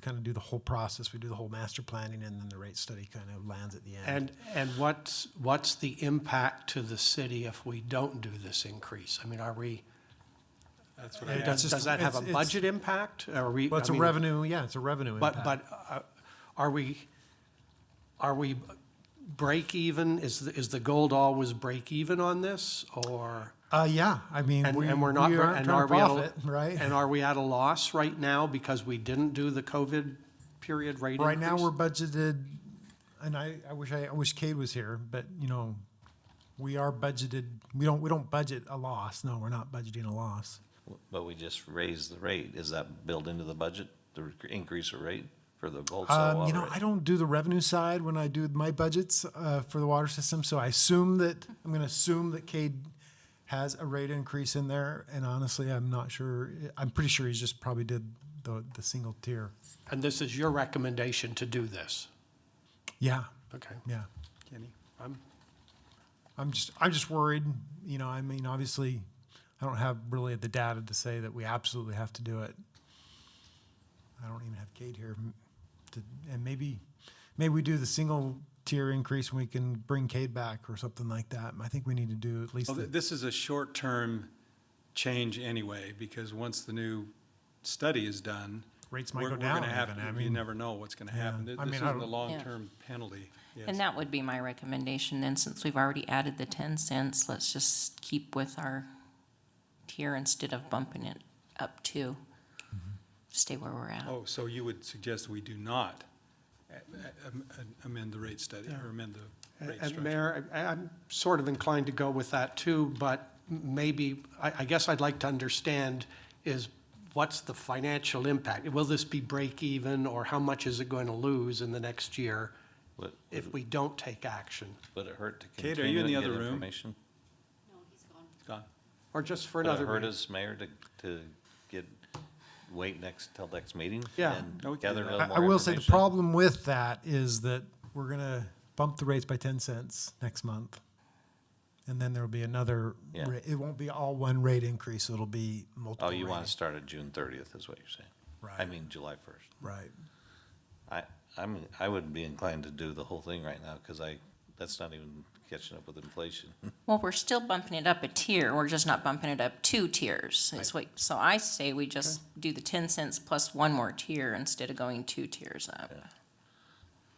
kind of do the whole process. We do the whole master planning and then the rate study kind of lands at the end. And, and what's, what's the impact to the city if we don't do this increase? I mean, are we, That's what I does, just- does that have a it's- it's- budget impact? Are we? Well, it's I a mean, revenue, yeah, it's a revenue But, impact. but uh, are we, are we break even? Is, the- is the goal to always break even on this or? Uh, yeah, I mean, And, we, and we're not, we aren't and trying are to we at a- profit, right? And are we at a loss right now because we didn't do the COVID period rate increase? Right now, we're budgeted, and I, I wish I, I wish Cade was here, but you know, we are budgeted, we don't, we don't budget a loss. No, we're not budgeting a loss. But we just raised the rate. Is that built into the budget, the rec- increase of rate for the bulk cell Um, you water know, rate? I don't do the revenue side when I do my budgets, uh, for the water system, so I assume that, I'm gonna assume that Cade has a rate increase in there, and honestly, I'm not sure, I'm pretty sure he's just probably did the, the single tier. And this is your recommendation to do this? Yeah, Okay. yeah. Kenny. I'm- I'm just, I'm just worried, you know, I mean, obviously, I don't have really the data to say that we absolutely have to do it. I don't even have Kate here m- to, and maybe, maybe we do the single tier increase and we can bring Kate back or something like that. I think we need to do at least, Well, th- the- this is a short-term change anyway, because once the new study is done. Rates might we're- go we're gonna down have even, to- I You mean- never know what's gonna happen. Th- I This mean, isn't I a don't- long-term penalty. yes. And that would be my recommendation then, since we've already added the ten cents, let's just keep with our tier instead of bumping it up to Mm-hmm. stay where we're at. Oh, so you would suggest we do not a- a- am- uh, amend the rate study, or amend the rate And structure? Mayor, I- I'm sort of inclined to go with that too, but m- maybe, I, I guess I'd like to understand is what's the financial impact? Will this be break even or how much is it going to lose in the next year Would, if we don't take action? would it hurt to Kate, continue are you in and the get other room? information? Gone. Or just for Would it another? hurt reason? us, Mayor, to, to get, wait next, till next meeting? Yeah. and No, we can Gather a do that. little I, more I will say the information? problem with that is that we're gonna bump the rates by ten cents next month. And then there'll be another, Yeah. ra- it won't be all one rate increase, it'll be multiple. Oh, you want rate- to start at June thirtieth is what you're saying? I Right. mean, July first. Right. I, I'm, I would be inclined to do the whole thing right now, because I, that's not even catching up with inflation. Well, we're still bumping it up a tier, we're just not bumping it up two tiers. It's what, so I say we just do the ten cents plus one more tier instead of going two tiers up.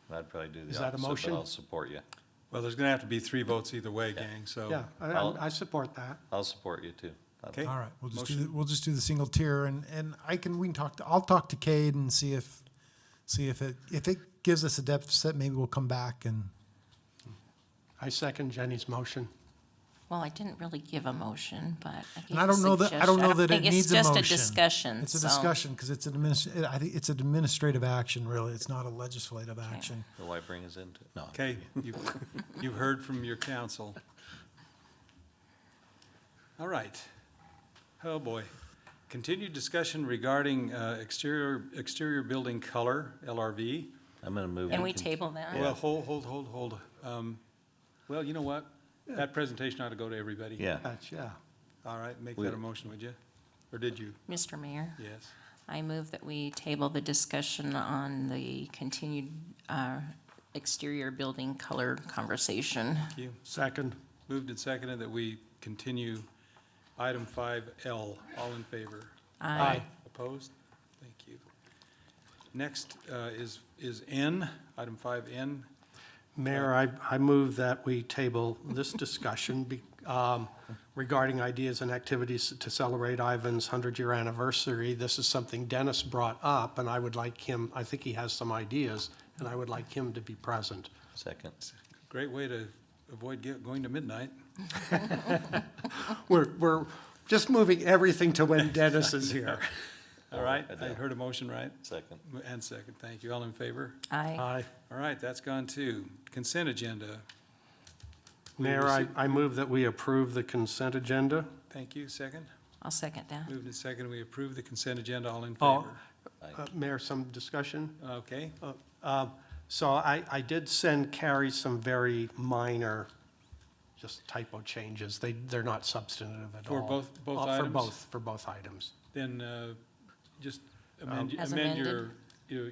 And I'd probably do Is the that a opposite, motion? but I'll support you. Well, there's gonna have to be three votes either way, gang, so. Yeah, I- I'll- I, I support that. I'll support you too. I'll- Okay. All right, we'll just do, Motion. the- we'll just do the single tier and, and I can, we can talk to, I'll talk to Cade and see if, see if it, if it gives us a deficit, maybe we'll come back and, I second Jenny's motion. Well, I didn't really give a motion, but I gave and I a don't know that, I don't suggestion. know that it think needs a motion. It's just a discussion, It's a so- discussion, because it's an adminis, I think it's an administrative action, really. It's not a legislative action. So why bring us into, no. I'm Okay, you've, you've heard from your counsel. All right. Oh, boy. Continued discussion regarding uh, exterior, exterior building color, LRV. I'm gonna move. Can we con- table that? Well, hold, hold, hold, hold. Um, Well, you know what? That presentation ought to go to everybody. Yeah, That's, yeah. All right, make We- that a motion, would you? Or did you? Mr. Mayor? Yes. I move that we table the discussion on the continued uh, exterior building color conversation. Thank you. Second. Moved and seconded that we continue item five L. All in favor? Aye. Opposed? Thank you. Next uh, is, is N, item five N. Mayor, I, I move that we table this discussion be- um, regarding ideas and activities to celebrate Ivan's 100-year anniversary. This is something Dennis brought up, and I would like him, I think he has some ideas, and I would like him to be present. second. Great way to avoid get- going to midnight. We're, we're just moving everything to when Dennis is here. All right, Adele. I heard a motion, right? Second. And second, thank you. All in favor? Aye. Aye. All right, that's gone too. Consent agenda. Mayor, I, I move that we approve the consent agenda. Thank you, second. I'll second that. Moved and second, we approve the consent agenda. All in Oh. favor? Uh, Mayor, some discussion? Okay, Uh, So I, I did send Carrie some very minor, just typo changes. They, they're not substantive at all. For both- both Uh, For items? both, for both items. then uh, just Um, amend As amend your, amended. your